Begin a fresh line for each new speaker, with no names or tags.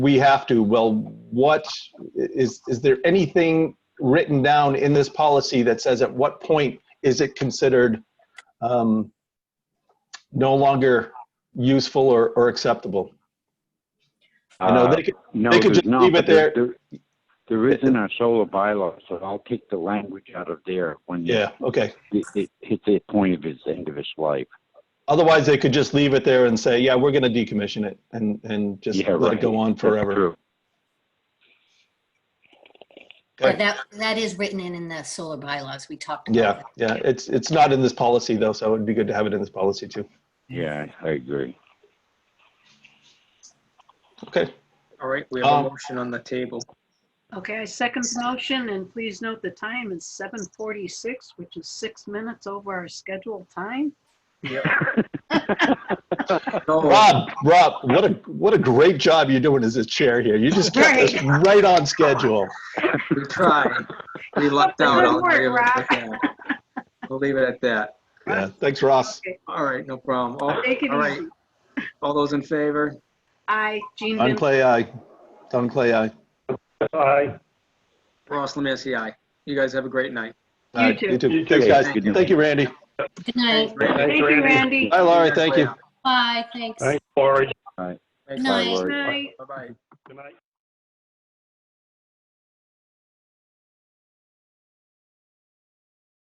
we have to, well, what, is, is there anything written down in this policy that says at what point is it considered um, no longer useful or, or acceptable? I know
Uh,
they could,
No,
they could
there's
just
no,
leave it
but
there.
there- There is in our solar bylaw, so I'll take the language out of there when it
yeah, okay.
it hits the point of its end of its life.
Otherwise, they could just leave it there and say, yeah, we're going to decommission it and, and just
Yeah,
let
right.
it go on
That's
forever.
true.
Okay.
But that, that is written in, in the solar bylaws. We talked about
Yeah,
that.
yeah, it's, it's not in this policy though, so it'd be good to have it in this policy too.
Yeah, I agree.
Okay,
All right, we have
Um,
a motion on the table.
Okay, I second the motion, and please note the time is 7:46, which is six minutes over our scheduled time.
No,
Rob, Rob, what a, what a great job you're doing as a chair here. You just kept us right on schedule.
we tried. We lucked out.
Good
I'll
work,
give it at
Rob.
that. We'll leave it at that.
Yeah, thanks, Ross.
All right, no problem. All
Take it
all right,
easy.
all those in favor?
Aye, Jean
Don
Van
Clay, aye. Don Clay, aye.
Aye.
Ross Lemansky, aye. You guys have a great night.
Aye,
too.
You
uh, Thanks,
too.
guys.
Good night.
Thank you, Randy.
Good night.
Randy.
Thank you, Randy.
Hi, Laura. Thank you.
Bye, thanks.
Thanks, Laurie.
Good
Thanks,
night.
Laura.
Night.
Bye-bye.
Good night.